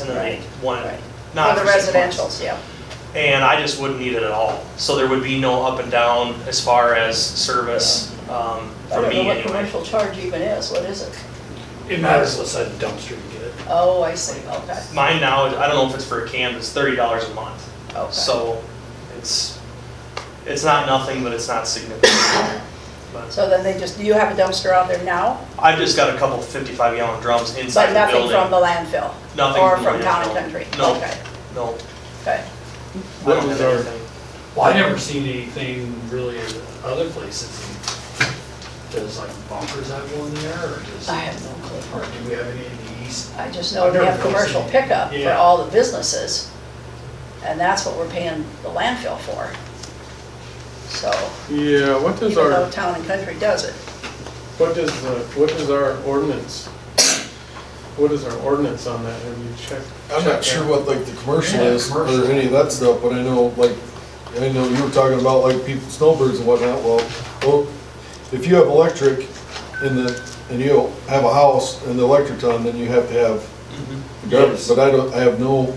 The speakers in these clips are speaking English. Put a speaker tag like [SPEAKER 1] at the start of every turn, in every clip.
[SPEAKER 1] and then
[SPEAKER 2] Right.
[SPEAKER 1] one,
[SPEAKER 2] Right.
[SPEAKER 1] not
[SPEAKER 2] For
[SPEAKER 1] for
[SPEAKER 2] the
[SPEAKER 1] six months.
[SPEAKER 2] residential's, yeah.
[SPEAKER 1] And I just wouldn't need it at all. So there would be no up and down as far as service um, for
[SPEAKER 2] I don't know
[SPEAKER 1] me
[SPEAKER 2] what
[SPEAKER 1] anyway.
[SPEAKER 2] commercial charge even is, what is it?
[SPEAKER 3] It matters what side of the dumpster you get it.
[SPEAKER 2] Oh, I see, okay,
[SPEAKER 1] Mine now, I don't know if it's for a can, but it's thirty dollars a month.
[SPEAKER 2] okay.
[SPEAKER 1] So it's, it's not nothing, but it's not significant. But
[SPEAKER 2] So then they just, do you have a dumpster out there now?
[SPEAKER 1] I've just got a couple fifty-five gallon drums inside
[SPEAKER 2] But
[SPEAKER 1] the
[SPEAKER 2] nothing
[SPEAKER 1] building.
[SPEAKER 2] from the landfill?
[SPEAKER 1] Nothing
[SPEAKER 2] Or
[SPEAKER 1] from
[SPEAKER 2] from
[SPEAKER 1] the
[SPEAKER 2] town and
[SPEAKER 1] landfill.
[SPEAKER 2] country?
[SPEAKER 1] No.
[SPEAKER 2] Okay,
[SPEAKER 1] No,
[SPEAKER 2] okay.
[SPEAKER 1] I don't
[SPEAKER 4] What is
[SPEAKER 1] have
[SPEAKER 4] our-
[SPEAKER 1] anything.
[SPEAKER 3] Well, I've never seen anything really in other places. Does like bunkers have one there or does,
[SPEAKER 2] I have no clue.
[SPEAKER 3] or do we have any in the east?
[SPEAKER 2] I just know we have commercial pickup for
[SPEAKER 3] Yeah.
[SPEAKER 2] all the businesses, and that's what we're paying the landfill for. So,
[SPEAKER 4] Yeah, what does
[SPEAKER 2] even though
[SPEAKER 4] our,
[SPEAKER 2] town and country does it,
[SPEAKER 4] what does the, what is our ordinance? What is our ordinance on that? Have you checked?
[SPEAKER 5] I'm
[SPEAKER 4] checked
[SPEAKER 5] not sure
[SPEAKER 4] that?
[SPEAKER 5] what like the commercial
[SPEAKER 3] Yeah,
[SPEAKER 5] is, or
[SPEAKER 3] commercial.
[SPEAKER 5] any of that stuff, but I know like, I know you were talking about like people, snowbirds and whatnot, well, well, if you have electric in the, and you have a house and the electric's on, then you have to have
[SPEAKER 1] Mhm.
[SPEAKER 3] Mm-hmm.
[SPEAKER 5] garbage, but I don't, I have no,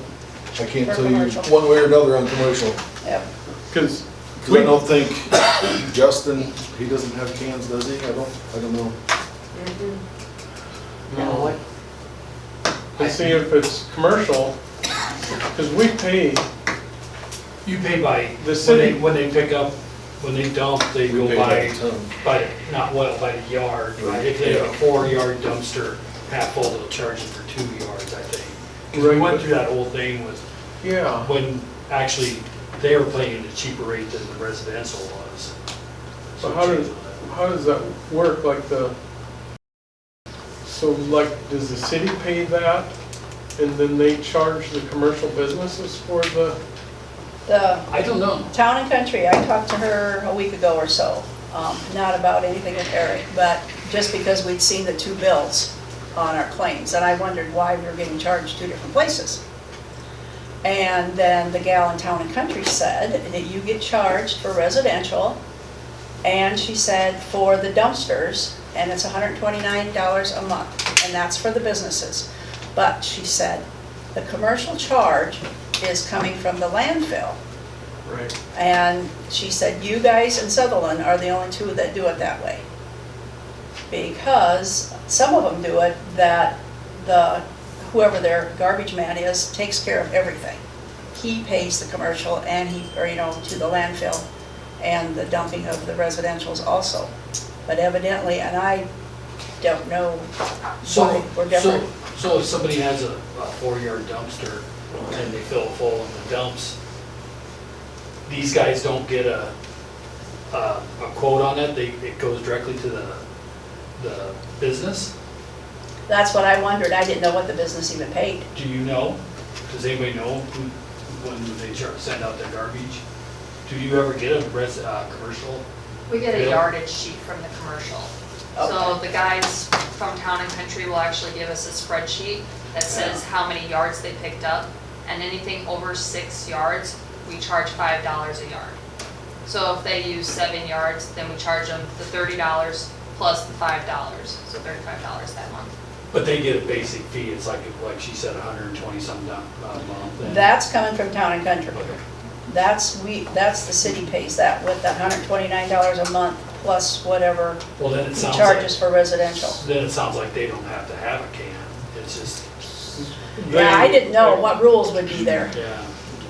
[SPEAKER 5] I can't
[SPEAKER 2] For
[SPEAKER 5] tell you
[SPEAKER 2] commercial.
[SPEAKER 5] one way or another on commercial.
[SPEAKER 2] yep.
[SPEAKER 4] Cause
[SPEAKER 5] Cause I don't think Justin, he doesn't have cans, does he? I don't, I don't know.
[SPEAKER 3] No.
[SPEAKER 4] to see if it's commercial, cause we pay,
[SPEAKER 3] You pay by,
[SPEAKER 4] The
[SPEAKER 3] when
[SPEAKER 4] city-
[SPEAKER 3] they, when they pick up, when they dump, they
[SPEAKER 5] We
[SPEAKER 3] go
[SPEAKER 5] pay
[SPEAKER 3] by,
[SPEAKER 5] by the ton.
[SPEAKER 3] by, the- not well, by the yard, right? If they have a
[SPEAKER 5] Yeah.
[SPEAKER 3] four-yard dumpster, half full, they'll charge you for two yards, I think. 'Cause we
[SPEAKER 4] Right,
[SPEAKER 3] went
[SPEAKER 4] but-
[SPEAKER 3] through that whole thing with
[SPEAKER 4] yeah.
[SPEAKER 3] when actually they were paying a cheaper rate than the residential was.
[SPEAKER 4] So how does, how does that work, like the, so like, does the city pay that? And then they charge the commercial businesses for the,
[SPEAKER 2] The
[SPEAKER 3] I don't know.
[SPEAKER 2] Town and Country, I talked to her a week ago or so, um, not about anything with Eric, but just because we'd seen the two bills on our claims, and I wondered why we were getting charged two different places. And then the gal in Town and Country said that you get charged for residential, and she said for the dumpsters, and it's $129 a month, and that's for the businesses. But she said, the commercial charge is coming from the landfill.
[SPEAKER 4] right,
[SPEAKER 2] And she said, you guys in Sutherland are the only two that do it that way. Because some of them do it that the, whoever their garbage man is, takes care of everything. He pays the commercial and he, or you know, to the landfill and the dumping of the residentials also. But evidently, and I don't know
[SPEAKER 3] So,
[SPEAKER 2] why we're
[SPEAKER 3] so,
[SPEAKER 2] different.
[SPEAKER 3] so if somebody has a, a four-yard dumpster and they fill it full in the dumps, these guys don't get a, a a quote on it, they, it goes directly to the, the business?
[SPEAKER 2] That's what I wondered. I didn't know what the business even paid.
[SPEAKER 3] Do you know? Does anybody know who, when they start- send out their garbage? Do you ever get a res, uh, commercial?
[SPEAKER 6] We get a
[SPEAKER 3] Really?
[SPEAKER 6] yardage sheet from the commercial. So the guys from Town and Country will actually give us a spreadsheet that says how many yards they picked up. And anything over six yards, we charge five dollars a yard. So if they use seven yards, then we charge them the thirty dollars plus the five dollars, so thirty-five dollars that month.
[SPEAKER 3] But they get a basic fee, it's like, like she said, a hundred and twenty some down, a month. and-
[SPEAKER 2] That's coming from Town and Country.
[SPEAKER 3] Okay.
[SPEAKER 2] That's, we, that's, the city pays that with that hundred twenty-nine dollars a month plus whatever
[SPEAKER 3] Well, then
[SPEAKER 2] he
[SPEAKER 3] it sounds
[SPEAKER 2] charges
[SPEAKER 3] like,
[SPEAKER 2] for residential.
[SPEAKER 3] then it sounds like they don't have to have a can, it's just,
[SPEAKER 2] Yeah, I
[SPEAKER 4] They-
[SPEAKER 2] didn't know what rules would be there.
[SPEAKER 3] yeah,
[SPEAKER 7] do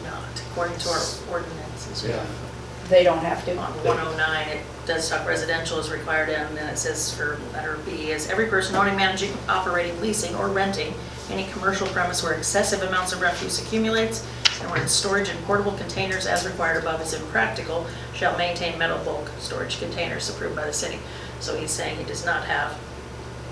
[SPEAKER 7] not, according to our ordinances.
[SPEAKER 3] yeah.
[SPEAKER 2] They don't have to.
[SPEAKER 7] On 109, it does talk residential is required, and then it says for letter B is every person owning, managing, operating, leasing, or renting any commercial premise where excessive amounts of refuse accumulates and where its storage in portable containers as required above is impractical, shall maintain metal bulk storage containers approved by the city. So he's saying he does not have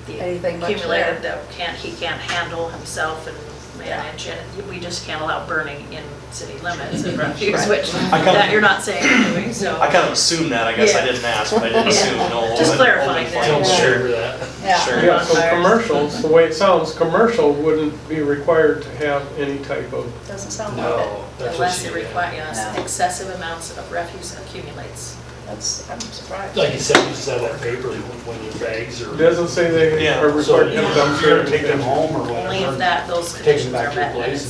[SPEAKER 7] the
[SPEAKER 2] Anything much
[SPEAKER 7] accumulated that can't, he can't handle himself and manage, and we just can't allow burning in city limits and refuse, which
[SPEAKER 1] kinda-
[SPEAKER 7] that you're not saying anyway, so.
[SPEAKER 1] I kind of assumed that, I guess I
[SPEAKER 7] Yeah.
[SPEAKER 1] didn't ask, but I didn't assume, no. open-
[SPEAKER 7] Just
[SPEAKER 1] open
[SPEAKER 7] clarifying
[SPEAKER 1] flame.
[SPEAKER 7] that.
[SPEAKER 3] Don't
[SPEAKER 2] Yeah.
[SPEAKER 3] share that.
[SPEAKER 2] Yeah,
[SPEAKER 1] Sure.
[SPEAKER 4] Yeah, so
[SPEAKER 7] Bonfires.
[SPEAKER 4] commercials, the way it sounds, commercial wouldn't be required to have any type of,
[SPEAKER 2] doesn't sound like it.
[SPEAKER 3] No, that's what
[SPEAKER 7] Unless
[SPEAKER 3] she
[SPEAKER 7] it
[SPEAKER 3] did.
[SPEAKER 7] requires
[SPEAKER 2] Yeah.
[SPEAKER 7] excessive amounts of refuse accumulates.
[SPEAKER 2] That's, I'm surprised.
[SPEAKER 3] Like you said, you just have that paper when your bags are.
[SPEAKER 4] It doesn't say they
[SPEAKER 1] Yeah.
[SPEAKER 4] are
[SPEAKER 3] So
[SPEAKER 4] required to
[SPEAKER 3] you
[SPEAKER 4] have
[SPEAKER 3] know,
[SPEAKER 4] dumpster.
[SPEAKER 3] you're gonna take them home or whatever.
[SPEAKER 7] Only if that, those
[SPEAKER 3] Take them
[SPEAKER 7] conditions are
[SPEAKER 3] back
[SPEAKER 7] met.
[SPEAKER 3] to your
[SPEAKER 7] then
[SPEAKER 3] place
[SPEAKER 7] it's-